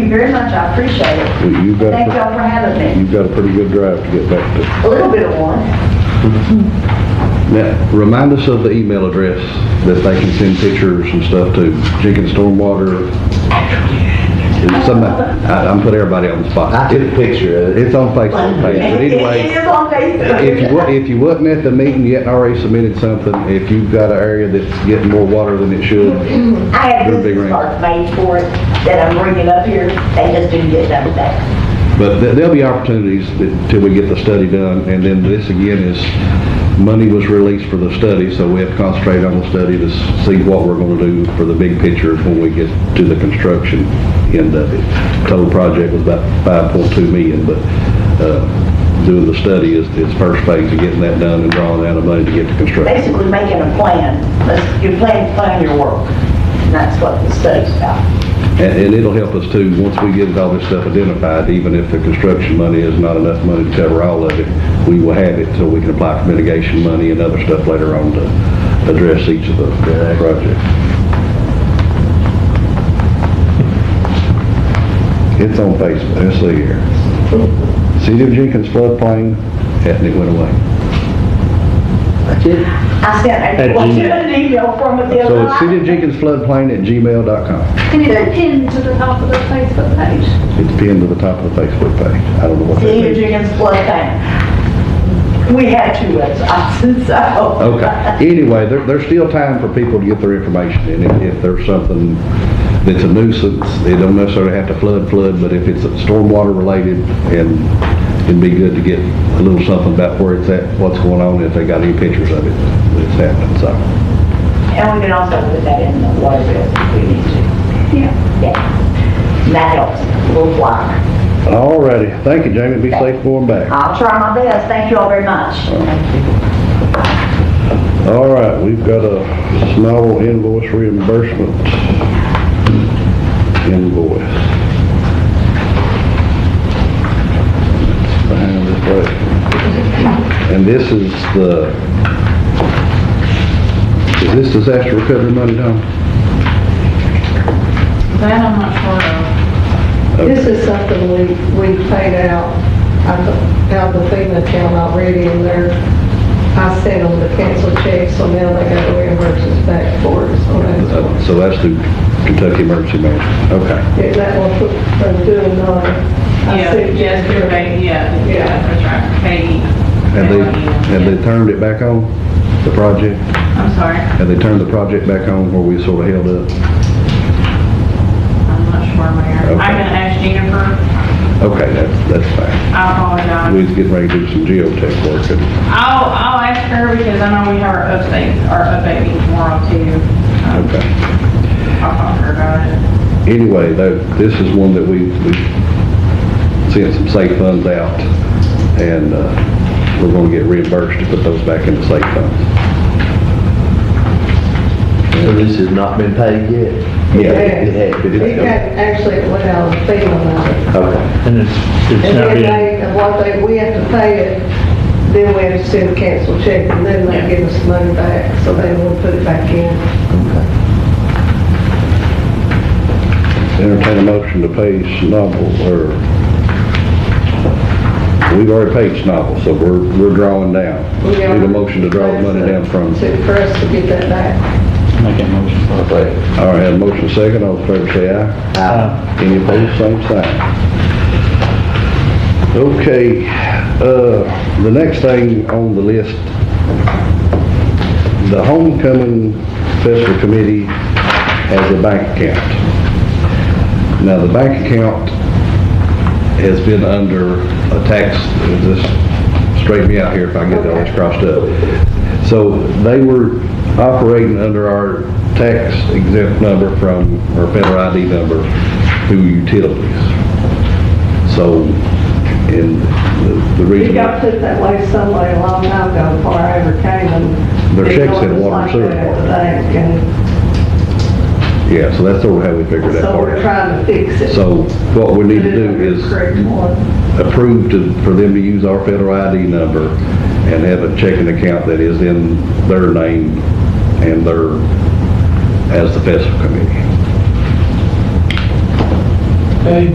very much, I appreciate it. You've got, Thank a y'all for having pre- me. you've got a pretty good drive to get back A to. little bit of one. Now, remind us of the email address that they can send pictures and stuff to, Jenkins Stormwater. It's some- I- I'm putting everybody on the spot. I took a picture of it. It's on Facebook page, but It- anyway. It is on If Facebook. you, wa- if you wasn't at the meeting yet and already submitted something, if you've got an area that's getting more water than it should, I had Real big business ring. cards made for it that I'm bringing up here. They just didn't get done today. but th- there'll be opportunities until we get the study done. And then this again is, money was released for the study, so we have to concentrate on the study to s- see what we're gonna do for the big picture when we get to the construction end of it. Total project was about five point two million, but, uh, doing the study is, is first phase of getting that done and drawing out the money to get to construction. Basically making a plan. Let's- You plan, plan your work. And that's what the study's about. And, and it'll help us too, once we get all this stuff identified, even if the construction money is not enough money to cover all of it, we will have it so we can apply for mitigation money and other stuff later on to address each of the projects. It's on Facebook, let's see here. City of Jenkins floodplain, and it went away. That's it. I sent At a, well, you Gmail. had an email from it the other So night. it's City of Jenkins floodplain at gmail.com. And it's pinned to the top of the Facebook page. It's pinned to the top of the Facebook page. I don't know what that City of means. Jenkins flood plain. We had two websites, so. Okay, anyway, there, there's still time for people to get their information, and if, if there's something that's a nuisance, they don't necessarily have to flood, flood, but if it's stormwater related, and it'd be good to get a little something about where it's at, what's going on, if they got any pictures of it, that's happening, so. And we can also put that in the water bill if we need to. Yeah. Yeah. And that helps, a little flyer. All righty, thank you, Jamie, be safe going back. I'll try my best. Thank you all very much. All right, we've got a small invoice reimbursement invoice. Behind this break. And this is the, is this disaster recovery money, Tom? That I'm not sure of. This is something we, we paid out, I th- out of the FEMA account already, and they're, I sent them the canceled check, so now they gotta reimburse us back for it, so that's, Uh, So that's the Kentucky Emergency Management, okay. is that one for, for doing none? Yeah, yes, we Becky, yeah, yeah, that's right, Becky. Have they, have they turned it back on, the project? I'm sorry, Have they turned the project back on where we sort of held up? I'm not sure where. Okay. I'm gonna ask Jennifer, Okay, that's, that's fine. I apologize. We was getting ready to do some geotech work, and I'll, I'll ask her because I know we have our update, our update meeting tomorrow too. Um, okay. I'll talk to her about it. Anyway, though, this is one that we, we sent some safe funds out, and, uh, we're gonna get reimbursed to put those back into safe funds. So this has not been paid yet? Yeah. It has. It got, actually, it went out of FEMA money. Okay. And it's, it's And not then been, they, what they, we have to pay it, then we have to send a cancel check, and then they give us money back, so then we'll put it back in. Entertain a motion to pay Snobble, or, we've already paid Snobble, so we're, we're drawing down. We are- Need a motion to draw the money down from, To, for us to get that back. make a motion for it. Okay. all right, have a motion second, all in favor say aye. Uh, Any opposed, same sign. Okay, uh, the next thing on the list, the Homecoming Festival Committee has a bank account. Now, the bank account has been under a tax, just straighten me out here if I get all this crossed up. So they were operating under our tax exempt number from, or federal ID number through utilities. So, and the- the We reason. got put that way some way a long time ago before I ever came and. Their checks had It was water and like sewer. that, I think, And Yeah, so that's sort of how we figured that so part we're out. trying to fix it. So what we need to do is Correct one. approve to, for them to use our federal ID number and have a checking account that is in their name and their, as the festival committee.